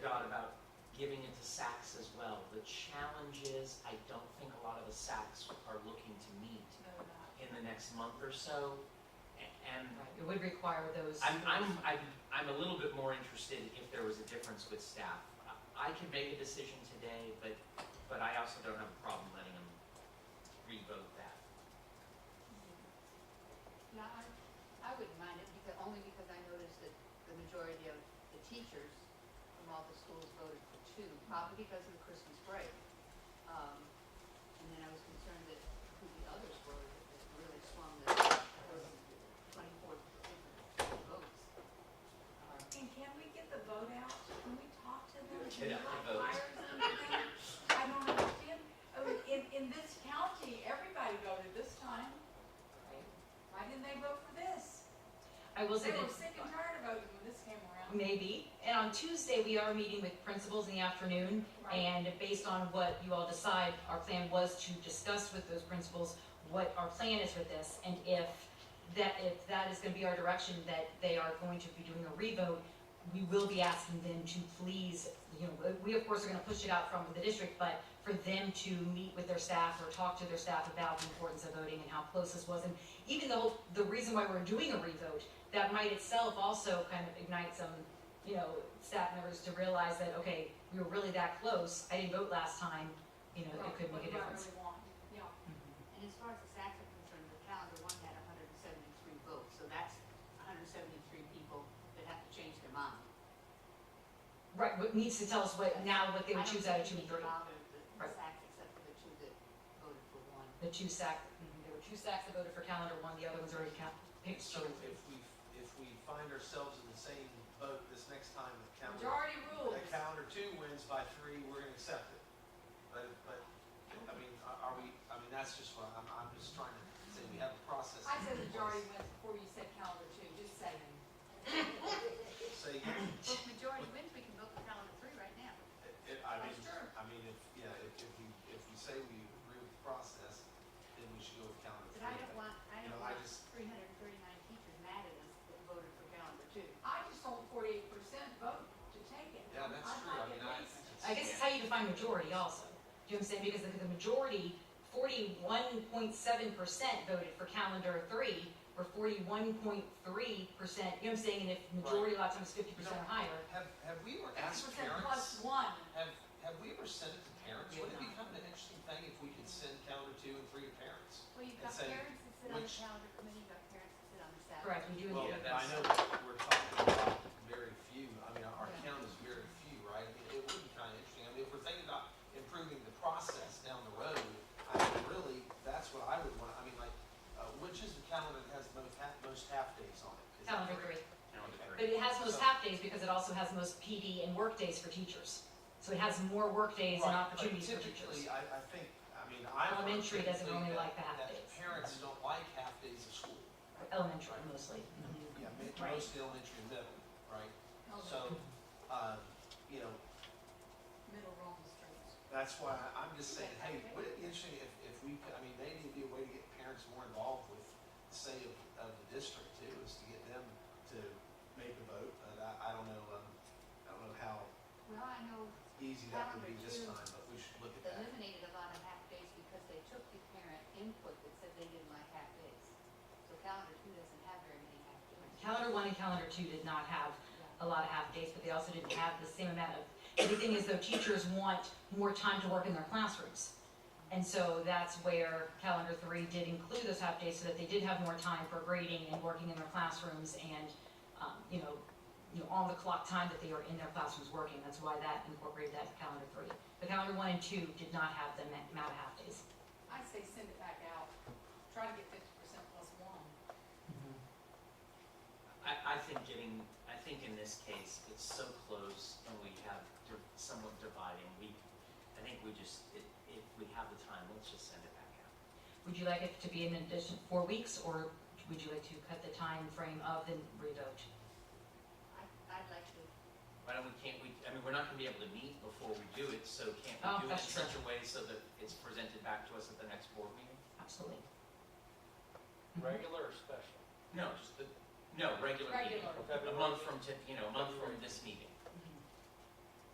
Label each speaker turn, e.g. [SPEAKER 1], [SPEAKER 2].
[SPEAKER 1] SACs as well. The challenge is, I don't think a lot of the SACs are looking to meet
[SPEAKER 2] No, not.
[SPEAKER 1] in the next month or so. A- And
[SPEAKER 3] Right, it would require those.
[SPEAKER 1] I'm, I'm, I'm, I'm a little bit more interested if there was a difference with staff. I- I can make a decision today, but, but I also don't have a problem letting them revote that.
[SPEAKER 4] No, I, I wouldn't mind it because, only because I noticed that the majority of the teachers from all the schools voted for two, probably because of the Christmas break. Um, and then I was concerned that who the others were that that really swung the, those twenty-four different votes. Um,
[SPEAKER 2] And can we get the vote out? Can we talk to them?
[SPEAKER 1] Get
[SPEAKER 2] Can we
[SPEAKER 1] out the
[SPEAKER 2] like
[SPEAKER 1] vote.
[SPEAKER 2] fire something? I don't understand. I mean, In, in this county, everybody voted this time.
[SPEAKER 3] Right.
[SPEAKER 2] Why didn't they vote for this?
[SPEAKER 3] I will say
[SPEAKER 2] They were
[SPEAKER 3] that
[SPEAKER 2] sick and tired of voting when this came around.
[SPEAKER 3] maybe, and on Tuesday, we are meeting with principals in the afternoon.
[SPEAKER 2] Right?
[SPEAKER 3] And based on what you all decide, our plan was to discuss with those principals what our plan is with this. And if that, if that is gonna be our direction, that they are going to be doing a revote, we will be asking them to please, you know, we of course are gonna push it out from the district, but for them to meet with their staff or talk to their staff about the importance of voting and how close this was. And even the whole, the reason why we're doing a revote, that might itself also kind of ignite some you know, staff members to realize that, okay, we were really that close, I didn't vote last time, you know, it could
[SPEAKER 2] What
[SPEAKER 3] make a
[SPEAKER 2] do I
[SPEAKER 3] difference.
[SPEAKER 2] really want? Yeah.
[SPEAKER 4] And as far as the SACs are concerned, the calendar one had hundred and seventy-three votes, so that's hundred and seventy-three people that have to change their mind.
[SPEAKER 3] Right, what needs to tell us what, now what they would choose out of two and
[SPEAKER 4] I don't think we need to
[SPEAKER 3] three,
[SPEAKER 4] bother the the
[SPEAKER 3] Right.
[SPEAKER 4] SACs except for the two that voted for one.
[SPEAKER 3] the two sack, mhm, there were two sacks that voted for calendar one, the other ones already count, picked.
[SPEAKER 5] So if we, if we find ourselves in the same boat this next time with calendar,
[SPEAKER 2] Majority rules.
[SPEAKER 5] that calendar two wins by three, we're gonna accept it. But, but, I mean, are are we, I mean, that's just what, I'm, I'm just trying to say, we have a process.
[SPEAKER 2] I said
[SPEAKER 5] in
[SPEAKER 2] majority
[SPEAKER 5] place.
[SPEAKER 2] wins before you said calendar two, just saying.
[SPEAKER 5] Say, it,
[SPEAKER 4] Well, if majority wins, we can vote for calendar three right now.
[SPEAKER 5] it- I mean,
[SPEAKER 2] That's true.
[SPEAKER 5] I mean, if, yeah, if, if we, if we say we agree with the process, then we should go with calendar
[SPEAKER 4] But
[SPEAKER 5] three.
[SPEAKER 4] I don't want, I
[SPEAKER 5] You
[SPEAKER 4] don't
[SPEAKER 5] know, I
[SPEAKER 4] want
[SPEAKER 5] just-
[SPEAKER 4] three hundred and thirty-nine teachers mad at us that voted for calendar two.
[SPEAKER 2] I just want forty-eight percent vote to take it.
[SPEAKER 5] Yeah, that's
[SPEAKER 2] I'd
[SPEAKER 5] true, I
[SPEAKER 2] like
[SPEAKER 5] mean,
[SPEAKER 2] at
[SPEAKER 5] I.
[SPEAKER 2] least-
[SPEAKER 3] I guess it's how you define majority also, do you know what I'm saying, because the, the majority, forty-one point seven percent voted for calendar three, or forty-one point three percent, you know what I'm saying, and if majority a lot of times fifty percent or higher,
[SPEAKER 5] Have, have we ever asked
[SPEAKER 2] 50%
[SPEAKER 5] parents?
[SPEAKER 2] Plus one.
[SPEAKER 5] Have, have we ever sent it to parents?
[SPEAKER 3] We
[SPEAKER 5] Would it
[SPEAKER 3] have
[SPEAKER 5] become an interesting thing if we could send calendar two and three to parents?
[SPEAKER 4] Well, you've
[SPEAKER 5] And
[SPEAKER 4] got
[SPEAKER 5] say,
[SPEAKER 4] parents that sit on the
[SPEAKER 5] which-
[SPEAKER 4] calendar committee, you've got parents that sit on the SAC.
[SPEAKER 3] correct, we do.
[SPEAKER 5] Well,
[SPEAKER 3] agree.
[SPEAKER 1] Yeah,
[SPEAKER 5] I
[SPEAKER 1] that's-
[SPEAKER 5] know that we're talking about very few, I mean, our our
[SPEAKER 3] Yeah.
[SPEAKER 5] count is very few, right? I mean, It would be kind of interesting, I mean, if we're thinking about improving the process down the road, I mean, really, that's what I would want, I mean, like, uh, which is the calendar that has most half, most half days on it? Is it
[SPEAKER 3] Calendar three.
[SPEAKER 1] Calendar three.
[SPEAKER 3] But it has most half days because it also has most PD and work days for teachers. So it has more work days and
[SPEAKER 5] Right, but
[SPEAKER 3] opportunities for teachers.
[SPEAKER 5] Typically, I, I think, I mean, I. would
[SPEAKER 3] Elementary doesn't
[SPEAKER 5] think
[SPEAKER 3] really like
[SPEAKER 5] that-
[SPEAKER 3] the half
[SPEAKER 5] that
[SPEAKER 3] days.
[SPEAKER 5] Parents don't like half days of school.
[SPEAKER 3] Elementary mostly.
[SPEAKER 5] Yeah, ma-
[SPEAKER 3] Right.
[SPEAKER 5] mostly elementary and middle, right?
[SPEAKER 2] Held
[SPEAKER 5] So, uh, you know,
[SPEAKER 2] middle wrong streets.
[SPEAKER 5] that's why I- I'm just saying, hey, would it be interesting if, if we, could- I mean, maybe it'd be a way to get parents more involved with, say, of, of the district too, is to get them to make a vote, but I, I don't know, um, I don't know how
[SPEAKER 4] Well, I know
[SPEAKER 5] easy that would be
[SPEAKER 4] Calendar
[SPEAKER 5] this
[SPEAKER 4] too.
[SPEAKER 5] time, but we should look at that.
[SPEAKER 4] eliminated a lot of half days because they took the parent input that said they didn't like half days. So calendar two doesn't have very many half days.
[SPEAKER 3] Calendar one and calendar two did not have
[SPEAKER 4] Yeah.
[SPEAKER 3] a lot of half days, but they also didn't have the same amount of, the thing is though, teachers want more time to work in their classrooms. And so that's where calendar three did include those half days so that they did have more time for grading and working in their classrooms and, um, you know, you know, on the clock time that they are in their classrooms working. That's why that incorporated that to calendar three. But calendar one and two did not have the ma- amount of half days.
[SPEAKER 2] I say send it back out, try to get fifty percent plus one.
[SPEAKER 1] I, I think getting, I think in this case, it's so close and we have di- somewhat dividing, we, I think we just, if, if we have the time, let's just send it back out.
[SPEAKER 3] Would you like it to be an addition four weeks or would you like to cut the time frame of the revote?
[SPEAKER 4] I, I'd like to,
[SPEAKER 1] Why don't we, can't we, I mean, we're not gonna be able to meet before we do it, so can't
[SPEAKER 3] Oh,
[SPEAKER 1] we do it in
[SPEAKER 3] that's true.
[SPEAKER 1] such a way so that it's presented back to us at the next board meeting?
[SPEAKER 3] Absolutely.
[SPEAKER 6] Regular or special?
[SPEAKER 1] No, just the, no, regular meeting.
[SPEAKER 2] Regular.
[SPEAKER 6] Okay,
[SPEAKER 1] A
[SPEAKER 6] we
[SPEAKER 1] month
[SPEAKER 6] want-
[SPEAKER 1] from, to- you know, a month from this meeting.